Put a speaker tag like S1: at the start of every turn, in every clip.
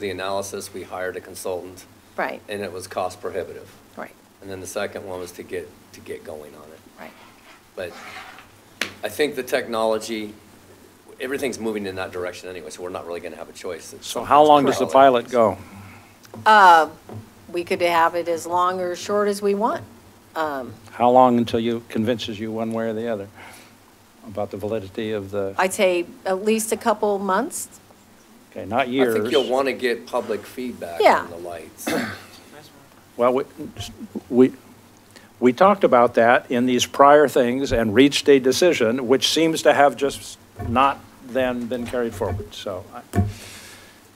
S1: the analysis, we hired a consultant,
S2: Right,
S1: and it was cost prohibitive.
S2: right,
S1: And then the second one was to get, to get going on it.
S2: right.
S1: But I think the technology, everything's moving in that direction anyway, so we're not really going to have a choice. It's-
S3: So how long does the pilot go?
S2: We could have it as long or short as we want.
S3: How long until you convinces you one way or the other about the validity of the,
S2: I'd say at least a couple months.
S3: okay, not
S1: I
S3: years?
S1: think you'll want to get public feedback
S2: Yeah.
S1: on the lights.
S3: Well, we- we, we talked about that in these prior things and reached a decision, which seems to have just not then been carried forward, so. I-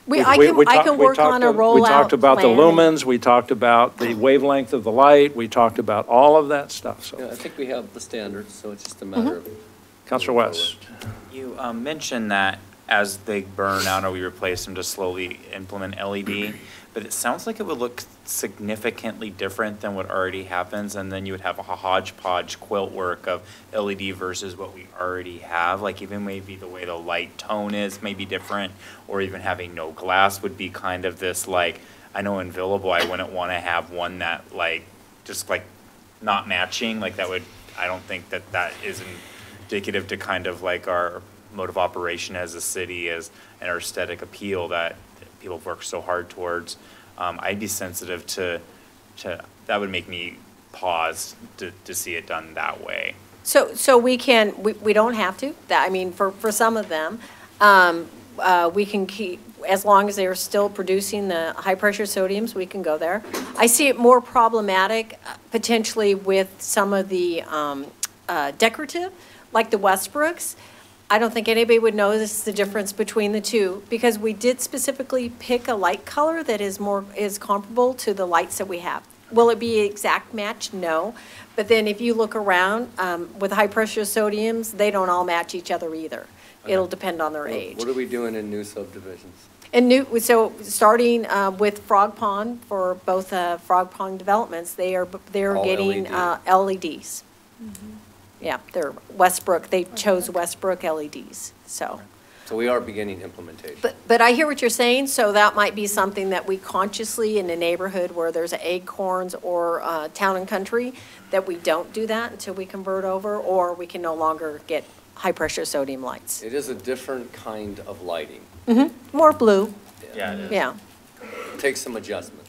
S2: We, I
S3: we-
S2: can,
S3: we
S2: I
S3: talked-
S2: can
S3: we
S2: work on a
S3: talked-
S2: rollout.
S3: We talked about the
S2: plan.
S3: lumens, we talked about the wavelength of the light, we talked about all of that stuff,
S1: Yeah, I
S3: so.
S1: think we have the standards, so it's just a
S2: Mm-hmm.
S1: matter of.
S3: Counselor West?
S4: You um, mentioned that as they burn out or we replace them to slowly implement LED, but it sounds like it would look significantly different than what already happens, and then you would have a hodgepodge quilt work of LED versus what we already have, like even maybe the way the light tone is may be different, or even having no glass would be kind of this like, I know in Villable, I wouldn't want to have one that like, just like not matching, like that would, I don't think that that is indicative to kind of like our mode of operation as a city, as, and our aesthetic appeal that people work so hard towards. Um, I'd be sensitive to, to, that would make me pause to, to see it done that way.
S2: So, so we can, we, we don't have to, that, I mean, for, for some of them, um, uh, we can keep, as long as they're still producing the high-pressure sodiums, we can go there. I see it more problematic uh, potentially with some of the, um, uh, decorative, like the Westbrooks. I don't think anybody would notice the difference between the two, because we did specifically pick a light color that is more, is comparable to the lights that we have. Will it be exact match? No. But then if you look around, um, with high-pressure sodiums, they don't all match each other either. It'll depend on their age.
S1: What are we doing in new subdivisions?
S2: And new, so starting uh, with Frog Pond, for both uh, Frog Pond developments, they are, they're
S1: All E
S2: getting
S1: LED.
S2: uh, LEDs. Yeah, they're Westbrook, they chose Westbrook LEDs, so.
S1: So we are beginning implementation.
S2: But, but I hear what you're saying, so that might be something that we consciously in a neighborhood where there's acorns or uh, town and country, that we don't do that until we convert over, or we can no longer get high-pressure sodium lights.
S1: It is a different kind of lighting.
S2: More blue,
S4: Yeah, it is.
S2: yeah.
S1: Takes some adjustment.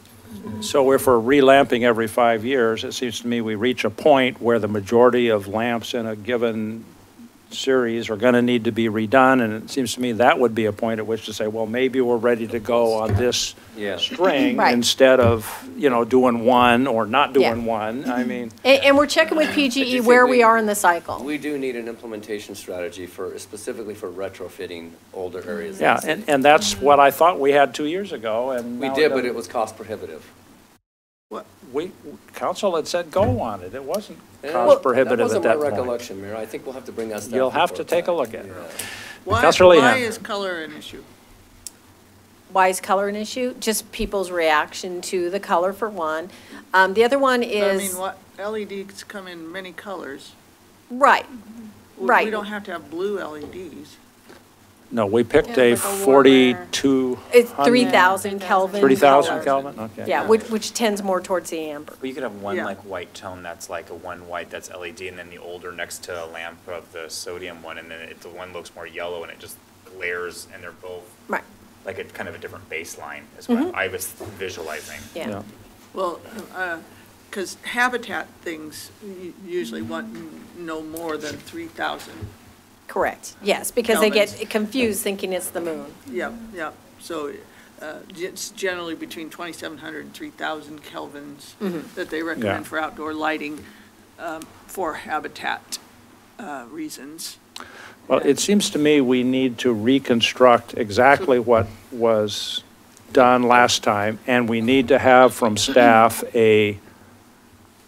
S3: So if we're relamping every five years, it seems to me we reach a point where the majority of lamps in a given series are going to need to be redone, and it seems to me that would be a point at which to say, well, maybe we're ready to go on this
S1: Yeah.
S3: string
S2: Right.
S3: instead of, you know, doing one or not
S2: Yeah. Mm-hmm.
S3: doing one. I mean,
S2: And, and we're checking with PGE where we are in the cycle.
S1: We do need an implementation strategy for, specifically for retrofitting older areas. of the
S3: yeah,
S1: city.
S3: and, and that's what I thought we had two years ago, and
S1: We
S3: now
S1: did, but
S3: doesn't-
S1: it was cost prohibitive.
S3: We, council had said go on it. It wasn't
S1: Well,
S3: cost prohibitive at that
S1: That wasn't my
S3: point.
S1: recollection, Mayor. I think we'll have to bring us that.
S3: You'll have to
S1: report
S3: take a
S1: back.
S3: look at it.
S1: Yeah.
S5: Why,
S3: Counselor
S5: why
S3: Leahan.
S5: is color an issue?
S2: Why is color an issue? Just people's reaction to the color for one. Um, the other one
S5: I mean,
S2: is,
S5: what, LEDs come in many colors.
S2: right,
S5: We-
S2: Right.
S5: We don't have to have blue E LEDs.
S3: No, we picked
S6: Yeah,
S3: a
S6: like a warmer-
S3: 42.
S2: it's three thousand
S6: 3,000
S2: Kelvin.
S3: 3,000
S2: color.
S3: Kelvin, okay.
S2: Yeah, which, which tends more towards the amber.
S4: But you could have one
S5: Yeah.
S4: like white tone that's like a one white that's LED, and then the older next to a lamp of the sodium one, and then it, the one looks more yellow and it just glares, and they're both
S2: Right,
S4: like a kind of a different baseline is what I was visualizing.
S2: yeah.
S5: Well, because habitat things u- usually want n- no more than 3,000.
S2: Correct, yes, because they get
S5: Kelvins.
S2: confused thinking it's the moon.
S5: Yep, yep. So uh, ge- it's generally between 2,700 and 3,000 kelvins
S2: Mm-hmm.
S5: that they
S3: Yeah.
S5: recommend for outdoor lighting um, for habitat uh, reasons.
S3: Well, it seems to me we need to reconstruct exactly what was done last time, and we need to have from staff a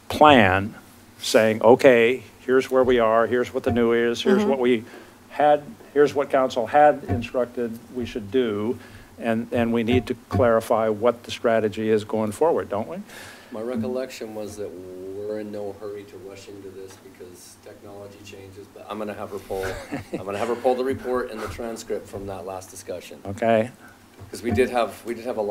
S3: plan saying, okay, here's where we are, here's what the new is, here's
S2: Mm-hmm.
S3: what we had, here's what council had instructed we should do, and, and we need to clarify what the strategy is going forward, don't we?
S1: My recollection was that we're in no hurry to rush into this because technology changes, but I'm gonna have her pull, I'm gonna have her pull the report and the transcript from that last discussion.
S3: Okay?
S1: Because we did have, we did have a